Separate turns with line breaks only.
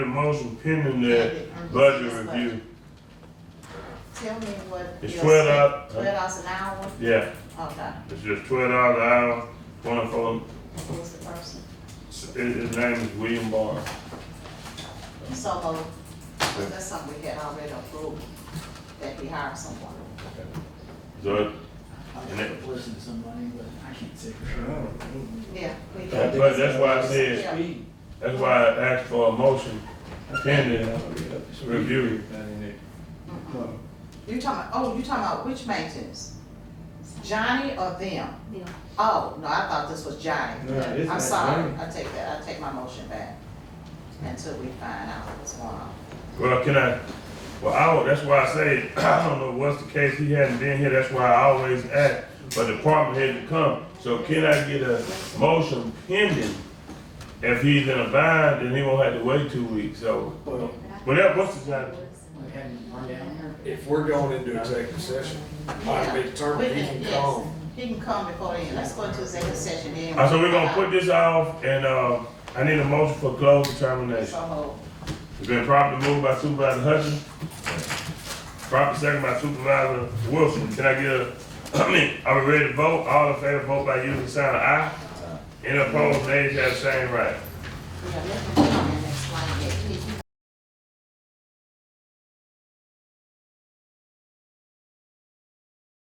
The motion pending the budget review,
Tell me what.
It's
your
twelve
sa-
hour-
Twelve dollars an hour, Oh,
yeah,
okay,
it's just twelve dollars an hour, twenty-four,
who's the person?
his, his name is William Barr.
So, uh, that's something we had already approved, that we hired someone.
So,
I
And it-
was listening to somebody, but I can't say for sure.
Yeah. we
that's
did.
why, that's why I said,
Yeah.
that's why I asked for a motion pending review.
Mhm. You talking, about- oh, you talking about which maintenance? Johnny or them?
Yeah.
Oh, no, I thought this was Johnny.
No, it's
I'm
not
sorry,
Johnny.
I take that, I take my motion back, until we find out what's going on.
Well, can I, well, I, would- that's why I say, I don't know what's the case, he hadn't been here, that's why I always ask, but the department had to come. So can I get a motion pending? If he's in a bind, then he won't have to wait two weeks, so,
Well,
whatever, what's the time?
We had him run down here.
if we're going into executive session, I'd be
We
determined he can
yes.
come.
He can come before then, let's go into executive session then.
Uh, so we're gonna put this off and, uh, I need a motion for closed determination.
So hold.
It's been properly moved by Supervisor Hutchins. Properly second by Supervisor Wilson. Can I get a, I mean, are we ready to vote? All in favor, vote by using the sign of aye. Any opposed, nays have the same right.
Yeah, let him come and explain it. He- he